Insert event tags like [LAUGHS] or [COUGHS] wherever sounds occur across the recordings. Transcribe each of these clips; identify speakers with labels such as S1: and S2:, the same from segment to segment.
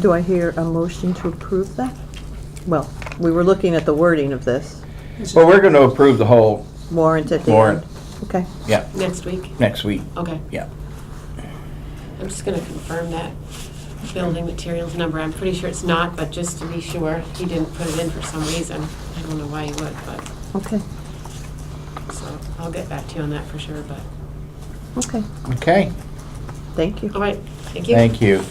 S1: Do I hear a motion to approve that? Well, we were looking at the wording of this
S2: Well, we're going to approve the whole
S1: warrant at the end.
S2: Warrant.
S1: Okay.
S3: Next week?
S2: next week.
S3: Okay.
S2: Yeah.
S3: I'm just gonna confirm that building materials number. I'm pretty sure it's not, but just to be sure, he didn't put it in for some reason. I don't know why he would, but,
S1: Okay.
S3: so I'll get back to you on that for sure, but,
S1: Okay.
S2: Okay,
S1: Thank you.
S3: all right, thank you.
S2: thank you.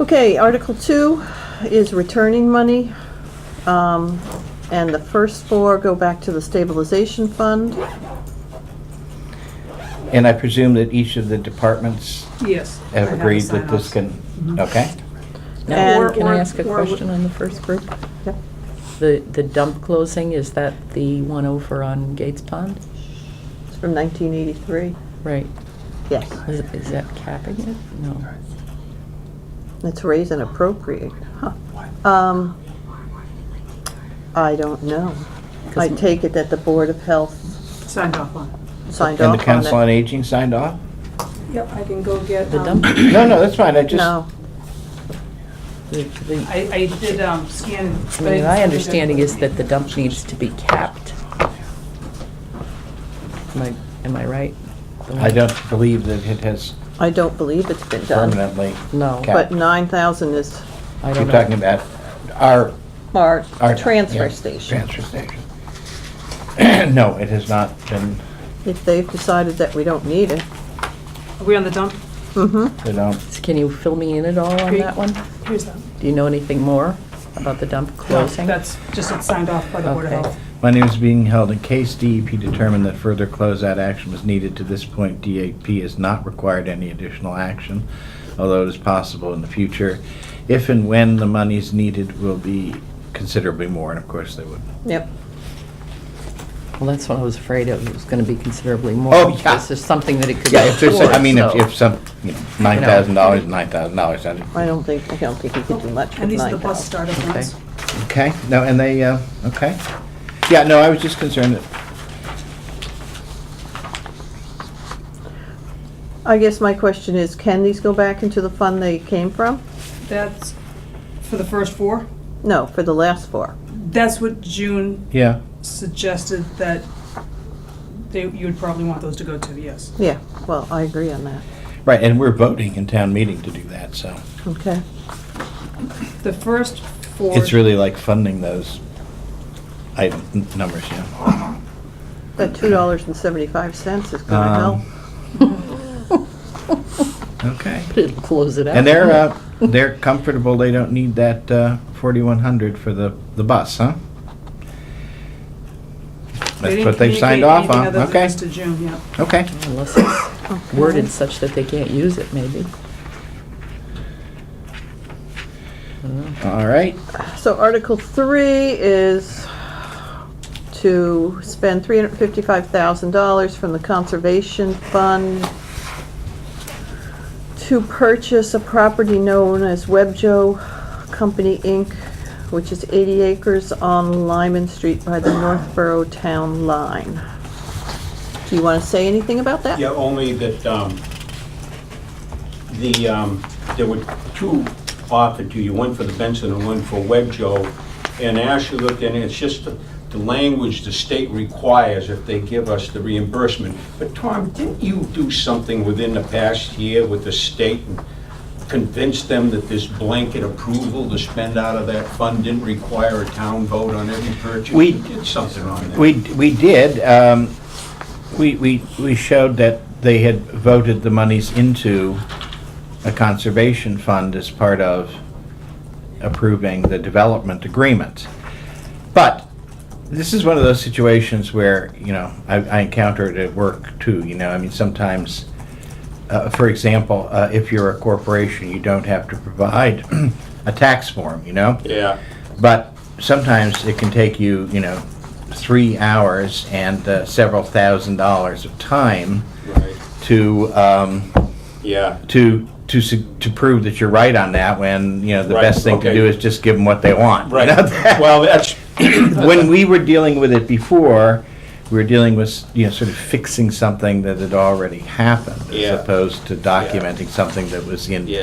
S1: Okay, Article Two is returning money. Um, and the first four go back to the stabilization fund.
S2: And I presume that each of the departments
S4: Yes. I
S2: have
S4: the
S2: agreed that this
S4: sign-offs.
S2: can, okay?
S1: And-
S5: Now, can
S4: Or-
S5: I ask a
S4: or- or-
S5: question on the first group?
S1: Yep.
S5: The, the dump closing, is that the one over on Gates Pond?
S1: It's from 1983.
S5: Right.
S1: Yes.
S5: Is, is that capping it? No.
S1: Let's raise and appropriate. Huh. Um, I don't know. I take it that the Board of Health
S4: Signed off on.
S1: signed
S2: And the
S1: off
S2: Council
S1: on
S2: on
S1: it.
S2: Aging signed off?
S4: Yep, I can go get,
S5: The
S4: um,
S5: dump,
S2: No, no, that's fine, I just.
S1: No,
S5: the, the,
S4: I, I did um, scan.
S5: I mean, my understanding is that the dump needs to be capped. Am I, am I right? The
S2: I
S5: one-
S2: don't believe that it has
S1: I don't believe it's been done.
S2: permanently.
S5: No.
S2: capped.
S1: But 9,000 is
S5: I
S2: You're
S5: don't
S2: talking
S5: know.
S2: about our,
S1: our
S2: our.
S1: transfer
S2: yeah,
S1: station.
S2: Transfer station. [CLEARS THROAT] No, it has not been,
S1: If they've decided that we don't need it.
S4: Are we on the dump?
S1: Mm-hmm.
S2: they don't,
S5: So Can you fill me in at all on
S4: Okay.
S5: that one?
S4: Here's that.
S5: Do you know anything more about the dump closing?
S4: That's just, it's signed off by the Board of
S5: Okay.
S4: Health.
S2: Money was being held in case DEP determined that further closeout action was needed. To this point, DEP has not required any additional action, although it is possible in the future. If and when the monies needed will be considerably more, and of course they would.
S1: Yep.
S5: Well, that's what I was afraid of, it was gonna be considerably more.
S2: Oh, yeah.
S5: This is something that it could be
S2: Yeah, if there's,
S5: afforded,
S2: I mean, if,
S5: so-
S2: if some, you know, nine thousand dollars, nine thousand dollars,
S1: I don't think, I don't think we could do much
S4: And
S1: with
S4: these are the bus
S1: 9,000.
S4: startup
S5: Okay.
S4: ones.
S2: okay, no, and they, uh, okay. Yeah, no, I was just concerned that,
S1: I guess my question is, can these go back into the fund they came from?
S4: That's for the first four.
S1: No, for the last four.
S4: That's what June
S2: yeah,
S4: suggested that they, you would probably want those to go to, yes.
S1: Yeah, well, I agree on that.
S2: right, and we're voting in town meeting to do that, so.
S1: Okay.
S4: The first four.
S2: It's really like funding those item, n- numbers, yeah.
S1: That $2.75 is gonna help.
S2: Um, Okay.
S5: It'll close it out.
S2: And they're, uh, they're comfortable, they don't need that, uh, forty-one hundred for the, the bus, huh? That's
S4: didn't
S2: what they've signed
S4: communicate
S2: off
S4: anything
S2: on,
S4: other than
S2: okay,
S4: this to June, yeah.
S2: okay.
S5: Unless
S2: [COUGHS]
S5: it's worded such that they can't use it, maybe.
S2: All right,
S1: So Article Three is to spend three hundred fifty-five thousand dollars from the Conservation Fund to purchase a property known as Webjo Company, Inc., which is eighty acres on Lyman Street by the Northborough Town Line. Do you want to say anything about that?
S6: Yeah, only that, um, the, um, there were two offered to you, one for the Benson and one for Webjo. And I actually looked in, it's just the the language the state requires if they give us the reimbursement. But Tom, didn't you do something within the past year with the state and convince them that this blanket approval to spend out of that fund didn't require a town vote on every purchase?
S2: We-
S6: You did something on that.
S2: we, we did, um, we, we, we showed that they had voted the monies into a conservation fund as part of approving the development agreement. But this is one of those situations where, you know, I, I encounter it at work too, you know, I mean, sometimes, uh, for example, uh, if you're a corporation, you don't have to provide [CLEARS THROAT] a tax form, you know?
S6: Yeah.
S2: But sometimes it can take you, you know, three hours and uh, several thousand dollars of time
S6: Right,
S2: to, um,
S6: yeah.
S2: to, to, su- to prove that you're right on that when, you know, the
S6: Right,
S2: best thing to
S6: okay.
S2: do is just [LAUGHS] give them what they want. you
S6: Right,
S2: know?
S6: well, that's,
S2: When we were dealing with it before, we were dealing with, you know, sort of fixing something that had already happened,
S6: Yeah.
S2: as opposed to documenting something that was in
S6: Yeah.